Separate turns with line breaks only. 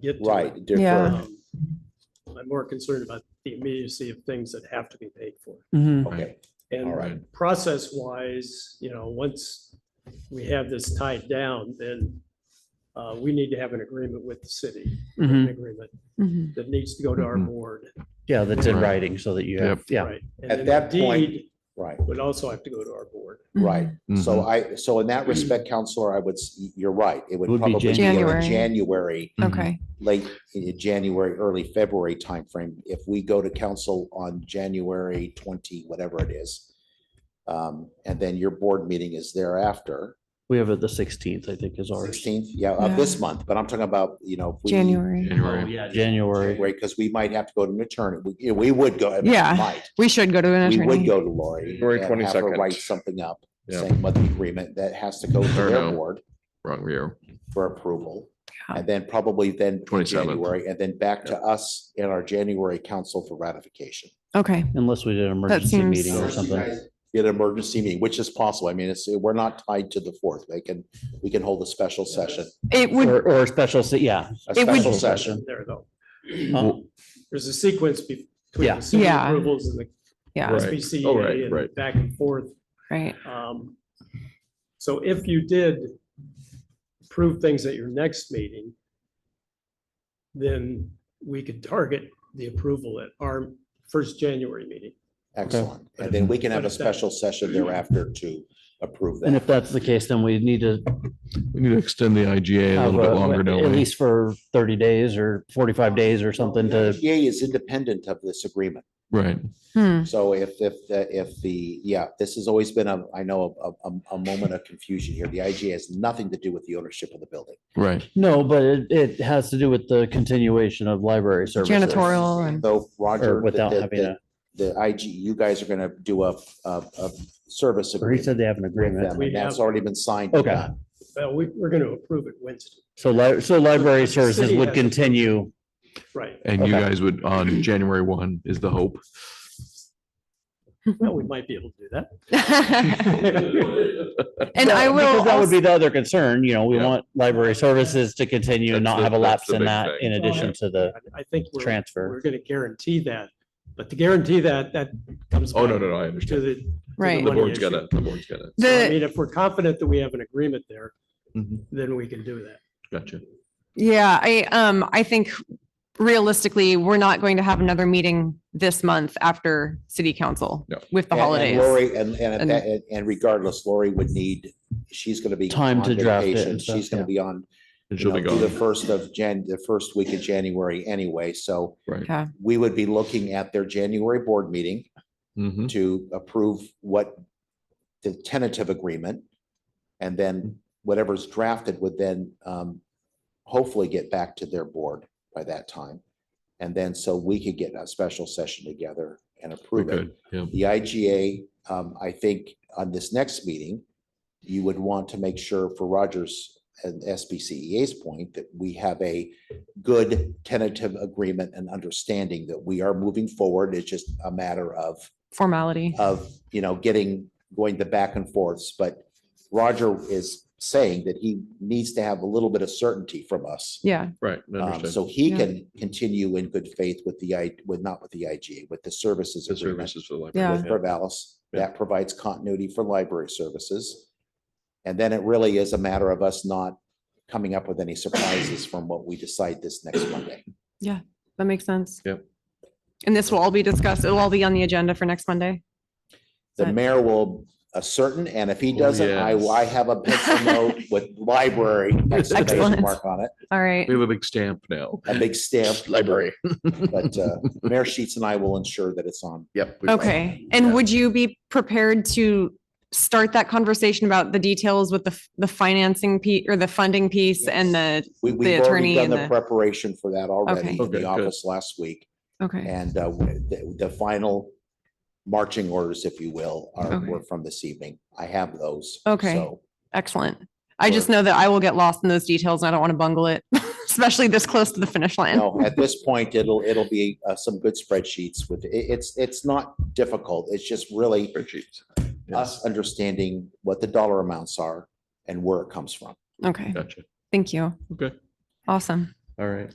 get. to
Right,
it.
defer.
Yeah.
Um, I'm more concerned about the immediacy of things that have to be paid for.
Mhm.
Okay, all
And
right.
process wise, you know, once we have this tied down, then uh, we need to have an agreement with the city, an
Mm-hmm.
Mhm.
agreement
Mhm.
that needs to go to our
Mm-hmm.
Mhm.
board.
Yeah, that's in writing so that you have, yeah.
right? And
At
then
that
the
point-
deed
Right,
Would also have to go to our board.
Mm-hmm.
right. So
Mhm.
I, so in that respect, counselor, I would, s- you're right. It would
Would be
probably be in the
January.
January,
Mm-hmm.
Okay.
late i- January, early February timeframe. If we go to council on January twenty, whatever it is. Um, and then your board meeting is thereafter,
We have it the sixteenth, I think is ours.
sixteenth, yeah, of this
Yeah.
month, but I'm talking about, you know. if we-
January.
Oh,
January.
yeah, January.
Right, because we might have to go to an attorney. We, we would go. I mean,
Yeah.
Might.
We should go to an
We would
attorney.
go to Lori.
January
and have her
22nd.
Write something up,
Yeah.
saying what the agreement that has to go to their
Or no.
board
Wrong year.
for approval.
Yeah.
And then probably then in
27th.
January, and then back to us in our January council for ratification.
Okay.
Unless we did an emergency
seems-
meeting or
Unless you
something.
guys Get an emergency meeting, which is possible. I mean, it's, we're not tied to the fourth. They can, we can hold a special session,
It would,
Or, or special, se- yeah.
a
It would-
special session.
There though.
Uh,
There's a sequence be- between
Yeah.
the city
Yeah.
approvals and the
yeah,
Right. Oh, right,
SBCA and
right.
back and forth.
right.
Um, So if you did prove things at your next meeting, then we could target the approval at our first January meeting.
Excellent. And then we can have
But
a
if that-
special session thereafter to approve
And
that.
if that's the case, then we need to
We need to extend the IGA a
have,
little bit longer,
a-
don't
at
we?
least for thirty days or forty-five days or something to,
IGA is independent of this agreement.
Right.
Hmm.
So if, if, the- if the, yeah, this has always been a, I know, a, a, a moment of confusion here. The IGA has nothing to do with the ownership of the building.
Right.
no, but it, it has to do with the continuation of library services.
Janitorial and,
Though
Or
Roger, the,
without having
the,
a,
the the IG, you guys are gonna do a, a, a service
or he
agreement.
said they have an
with
agreement.
them, and That's already been signed. and
Okay.
done.
Well, we, we're going to approve it Wednesday,
So li- so library services
City
would
has a-
continue.
right?
And you
Okay.
guys would, on January one is the hope.
Well, we might be able to do that.
Oh,
and I
Well, because
will,
That would
also-
be the other concern, you know, we
Yeah.
want library services to continue and
That's
not
the-
have a
that's
lapse
the
in
big
that
thing.
in addition
yeah.
to the,
I- I think we're.
Transfer.
We're going to guarantee that, but to guarantee that, that comes.
Oh, no,
back
no, no, I
To
understand.
the.
right.
The
money
board's
issue.
gonna, the board's gonna.
So, I
The-
mean, if we're confident that we have an agreement there,
Mhm.
then we can do that.
Gotcha.
Yeah, I, um, I think realistically, we're not going to have another meeting this month after city council
No.
with the
And- and
holidays.
Lori, and, and, at
And-
that- and- and regardless, Lori would need, she's gonna be.
Time
on
to draft it
vacation.
and stuff,
She's gonna
yeah.
be on, you
And she'll be
know, through the
gone.
first of Jan, the first week of January anyway, so
Right.
Yeah.
we would be looking at their January board meeting.
Mhm.
to approve what the tentative agreement. And then whatever's drafted would then um, hopefully get back to their board by that time. And then so we could get a special session together and
We
approve it.
could, yeah.
The IGA, um, I think on this next meeting, you would want to make sure for Rogers and SBCEA's E point that we have a good tentative agreement and understanding that we are moving forward. It's just a matter of
Formality.
of, you know, getting, going the back and forths, but Roger is saying that he needs to have a little bit of certainty from us.
Yeah.
Right. I
Um,
understand.
So he
Yeah.
can continue in good faith with the, I with, not with the IGA, with the services
The
agreement
services for the
Yeah.
with
library.
Corvallis. That provides continuity for library services. And then it really is a matter of us not coming up with any surprises from what we decide this next Monday.
That makes sense.
Yep.
And this will all be discussed. It'll all be on the agenda for next Monday.
The
Right.
mayor will ascertain, and if he
Oh,
doesn't, I,
yes.
I have a pencil note with library exclamation
Excellent.
mark on it,
All right.
We have a big stamp now.
a big stamp.
Library.
But uh, Mayor Sheets and I will ensure that it's on.
Yep. we will.
Okay. And would you be prepared to start that conversation about the details with the, f- the financing piece or the funding piece and the,
We, we've already
attorney
done
and
the
the-
preparation for that already in
Okay,
the
good.
office last week.
okay.
And uh, the, the final marching orders, if you will, are,
Okay.
were from this evening. I have those.
Okay.
so
Excellent. I just know that I will get lost in those details and I don't want to bungle it, especially this close to the finish line.
No, at this point, it'll, it'll be uh, some good spreadsheets with, it, it's, it's not difficult. It's just
Oh.
really
Spreadsheets.
us understanding what the dollar amounts are and where it comes from.
Okay.
Gotcha.
Thank you.
Okay.
Awesome.
All right.